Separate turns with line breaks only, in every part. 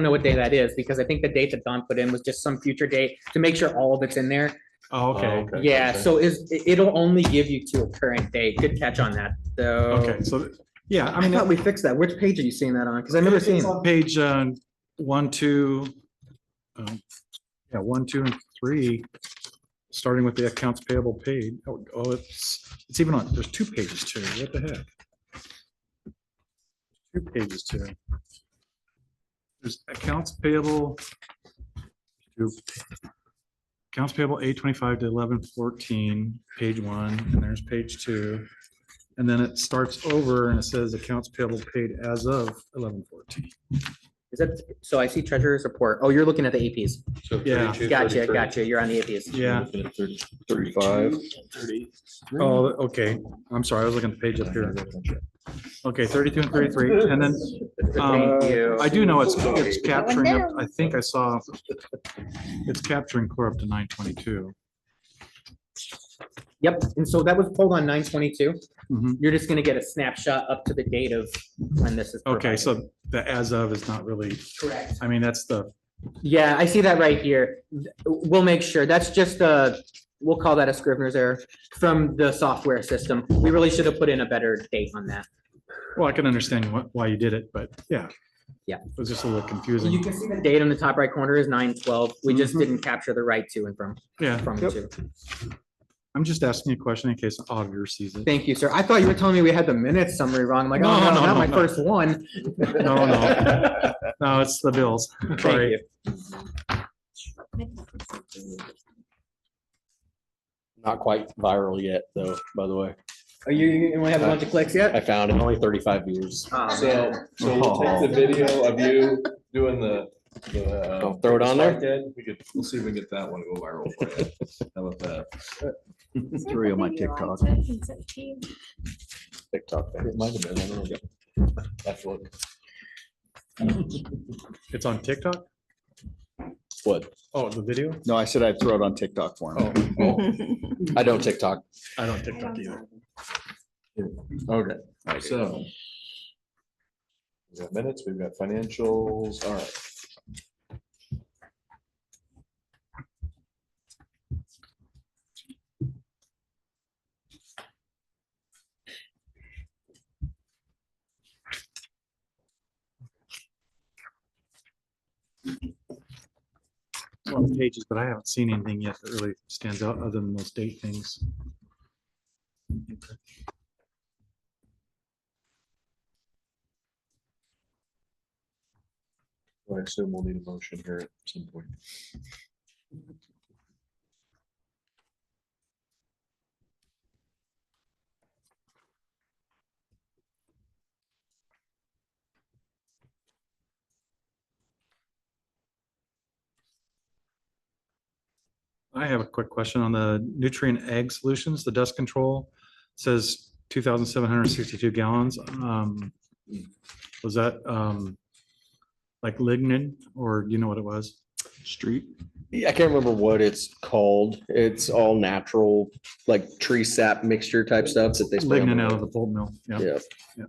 don't know what day that is because I think the date that Don put in was just some future date to make sure all of it's in there.
Oh, okay.
Okay,
Yeah,
okay.
so is, it- it'll only give you to a current date. Good catch on that, though.
Okay, so, yeah, I
I
mean,
thought we fixed that. Which page are you seeing that on? Because I've never seen.
it's on page, uh, one, two. um, Yeah, one, two, and three, starting with the accounts payable paid. Oh, oh, it's, it's even on, there's two pages too. What the heck? Two pages too. There's accounts payable. two. Accounts payable eight twenty-five to eleven fourteen, page one, and there's page two. And then it starts over and it says accounts payable paid as of eleven fourteen.
Is that, so I see treasurer's report. Oh, you're looking at the APs.
So
Yeah.
32,
Gotcha,
33.
gotcha. You're on the APs.
Yeah,
Thirty-five.
oh, okay. I'm sorry, I was looking at the page up here. Okay, thirty-two and thirty-three, and then um,
Thank you.
I do know it's, it's capturing, up- I think I saw it's capturing core up to nine twenty-two.
Yep, and so that was pulled on nine twenty-two.
Mhm.
You're just gonna get a snapshot up to the date of when this is.
Okay,
provided.
so the as of is not really,
Correct.
I mean, that's the,
Yeah, I see that right here. We'll make sure. That's just a, we'll call that a scrivener's error from the software system. We really should have put in a better date on that.
well, I can understand what, why you did it, but yeah.
Yeah.
It was just a little
You
confusing.
can see the date on the top right corner is nine twelve. We just didn't capture the right to and from,
Yeah,
from
Mm-hmm. yep.
to.
I'm just asking you a question in case the auditor sees it.
Thank you, sir. I thought you were telling me we had the minutes summary wrong. I'm like, oh,
No,
no,
no,
not
no,
my
no.
first one.
No, no. No, it's the bills.
Thank
Sorry.
you.
Not quite viral yet, though, by the way.
Are you, you only have a bunch of clicks yet?
I found it only thirty-five views.
Um,
Ah, man.
So, so
Oh.
we'll take the video of you doing the, the. uh,
Don't throw it on there?
slide dead. We could, we'll see if we can get that one to go viral. for you. How about that?
Three on my TikTok.
TikTok.
It might have been, I don't know. That's what.
It's on TikTok?
What?
Oh, the video?
No, I said I'd throw it on TikTok for him.
Oh, I don't TikTok.
I don't TikTok either.
Okay, so. We've got minutes, we've got financials, all right.
Well, Pages, but I haven't seen anything yet that really stands out other than those date things.
Well, I assume we'll need a motion here at some point.
I have a quick question on the nutrient egg solutions, the dust control says two thousand seven hundred sixty-two gallons. Um, Was that um like lignin or do you know what it was? Street?
Yeah, I can't remember what it's called. It's all natural, like tree sap mixture type stuff that they. spray on
Lignin
the-
out of the pulp mill. Yeah.
Yeah,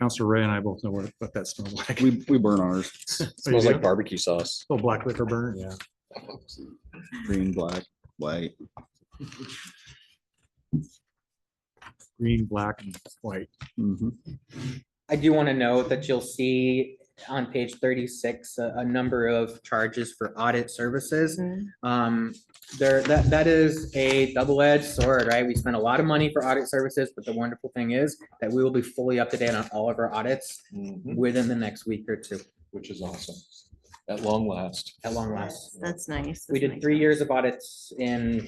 Counselor Ray and I both know what, what that smells like.
We, we burn ours,
smells
Oh, do?
like barbecue sauce.
Little black liquor burn. Yeah.
green, black, white.
Green, black and white.
Mhm.
I do want to note that you'll see on page thirty-six, a, a number of charges for audit services. Um, there, that, that is a double-edged sword, right? We spend a lot of money for audit services, but the wonderful thing is that we will be fully up to date on all of our audits
Mhm,
within the next week or two,
Which is awesome, at long last.
at long last.
That's nice.
We
that's
did
nice.
three years of audits in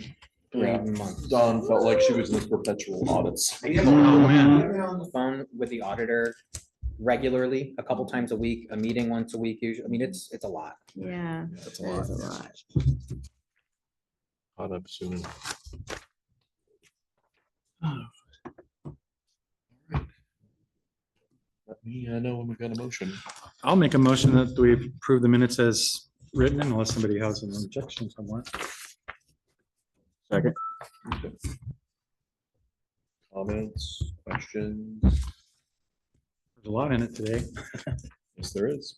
three
Yeah.
months.
Dawn felt like she was in the perpetual audits.
I get
Oh, man.
on the phone with the auditor regularly, a couple times a week, a meeting once a week, usually. I mean, it's, it's a lot.
Yeah.
That's
that is a lot.
Caught up soon. Let me uh, know when we got a motion.
I'll make a motion that we approve the minutes as written unless somebody has an objection somewhere.
Comments, questions?
There's a lot in it today.
Yes, there is.